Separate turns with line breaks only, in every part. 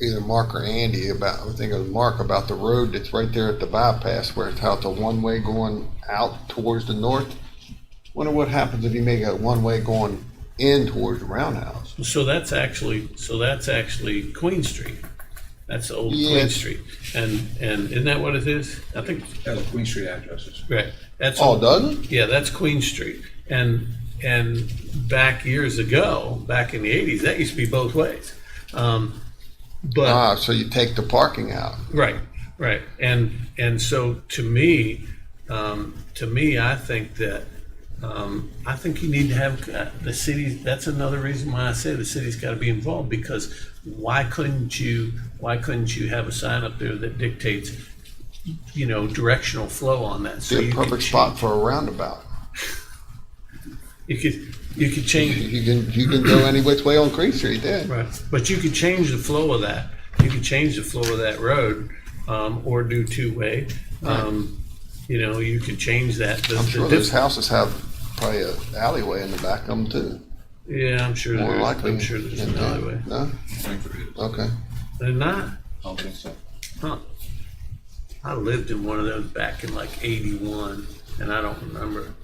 either Mark or Andy about, I think it was Mark, about the road that's right there at the bypass where it's how it's a one-way going out towards the north. Wonder what happens if you make a one-way going in towards the roundhouse?
So that's actually, so that's actually Queen Street. That's old
Yeah.
Queen Street. And, and isn't that what it is? I think,
That's Queen Street addresses.
right, that's.
Oh, doesn't it?
Yeah, that's Queen Street. And, and back years ago, back in the eighties, that used to be both ways. Um, But
Ah, so you take the parking out.
Right, right. And, and so to me, um, to me, I think that, um, I think you need to have uh, the city, that's another reason why I say the city's gotta be involved, because why couldn't you, why couldn't you have a sign up there that dictates, you know, directional flow on that? So
Be
you
a
could
perfect
ch-
spot for a roundabout.
You could, you could change,
You can, you can go any which way on Creek Street then.
Right, but you could change the flow of that, you could change the flow of that road, um, or do two-way. Um, you know, you could change that. The-
I'm
the
sure
diff-
those houses have probably an alleyway in the back of them too.
Yeah, I'm sure
More
there's,
likely.
I'm sure there's
than
an
that.
alleyway.
No? Okay.
They're not,
I don't think so.
huh? I lived in one of those back in like eighty-one, and I don't remember.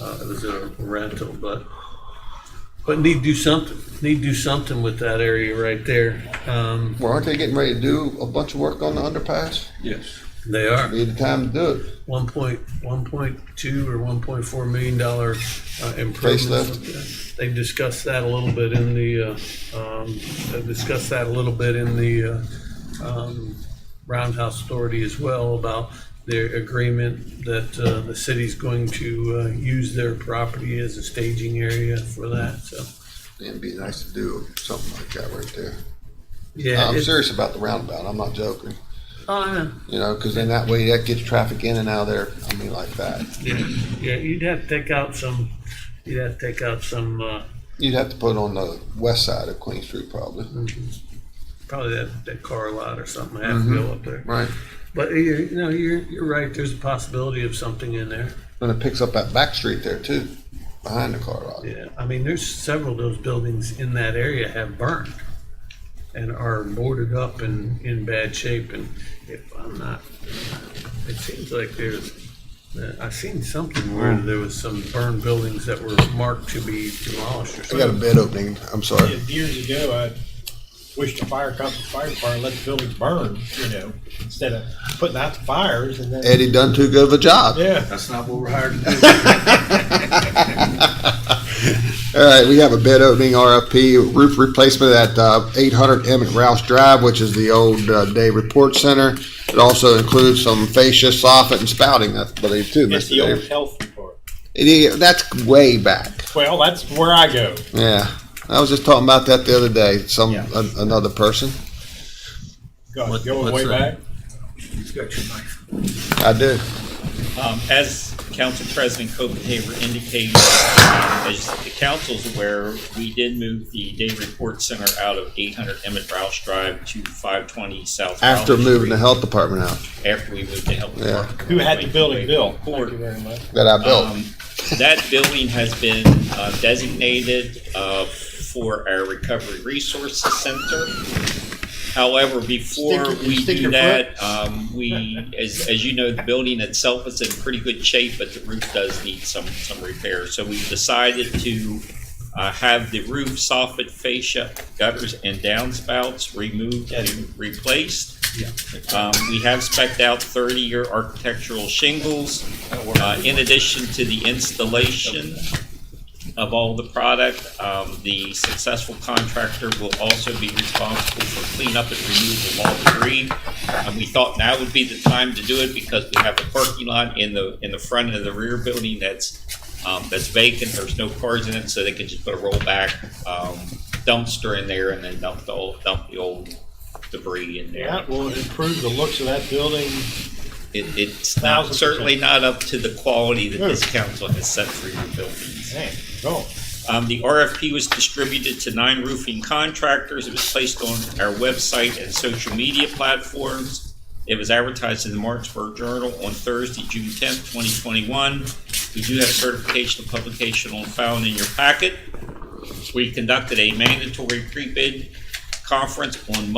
Uh, it was a rental, but, but need to do something, need to do something with that area right there. Um,
Well, aren't they getting ready to do a bunch of work on the underpass?
Yes.
they are.
Be the time to do it.
one point, one point two or one point four million dollar uh, improvements. They discussed that a little bit in the, uh, um, they discussed that a little bit in the, uh, um, Roundhouse Authority as well about their agreement that, uh, the city's going to, uh, use their property as a staging area for that, so.
It'd be nice to do something like that right there.
Yeah.
I'm
it-
serious about the roundabout. I'm not joking.
Oh, I know.
You know, because then that way that gets traffic in and out of there. I mean, like that.
Yeah, yeah, you'd have to take out some, you'd have to take out some, uh,
You'd have to put it on the west side of Queen Street probably.
probably that, that car lot or something, have to go up there.
Right.
But you you know, you're, you're right, there's a possibility of something in there.
And it picks up that back street there too, behind the car lot.
Yeah, I mean, there's several of those buildings in that area have burned and are boarded up and in bad shape, and if I'm not, it seems like there's, I seen something where there was some burned buildings that were marked to be demolished or
I got a
something.
bed opening. I'm sorry.
Years ago, I wished the fire company, fire department, let the buildings burn, you know, instead of putting out the fires and then,
Eddie done too good of a job.
yeah.
That's not what we're hired to do.
All right, we have a bid opening RFP roof replacement at uh, 800 Emmett Rouse Drive, which is the old uh, Day Report Center. It also includes some fascia, soffit, and spouting, I believe, too,
It's
Mr.
the old
Dave.
health department.
It is- That's way back.
Well, that's where I go.
Yeah, I was just talking about that the other day. Some
Yeah.
an- another person.
God,
What-
Going
what's
way
that?
back.
You've got your knife.
I do.
Um, As Council President Copenhaver indicated, as the council's aware, we did move the day report center out of 800 Emmett Rouse Drive to 520 South.
After
Rowley
moving the
Street,
health department out
After we moved the health
Yeah.
department.
Who had the building built?
Court.
very much.
that I built.
Um, That building has been uh, designated uh, for our Recovery Resources Center. However, before
Stick your-
we
stick
do
your
that, um, we, as, as you know, the building itself is in pretty good shape, but the roof does need some, some repair. So we've decided to uh, have the roof soffit fascia, gutters, and downspouts removed and replaced. Um, We have spec'd out 30-year architectural shingles. Uh, In addition to the installation of all the product, um, the successful contractor will also be responsible for cleanup and removal of all debris. And we thought now would be the time to do it because we have a parking lot in the, in the front and the rear building that's, um, that's vacant. There's no cars in it, so they could just put a rollback um, dumpster in there and then dump the old, dump the old debris in there.
That will improve the looks of that building.
It, it's not,
Thousand
certainly not up to the quality that this
Hmm.
council has set for your buildings.
Man, go.
Um, the RFP was distributed to nine roofing contractors. It was placed on our website and social media platforms. It was advertised in the Martinsburg Journal on Thursday, June tenth, twenty twenty-one. We do have certification of publication on file in your packet. We conducted a mandatory pre-bid conference on Monday.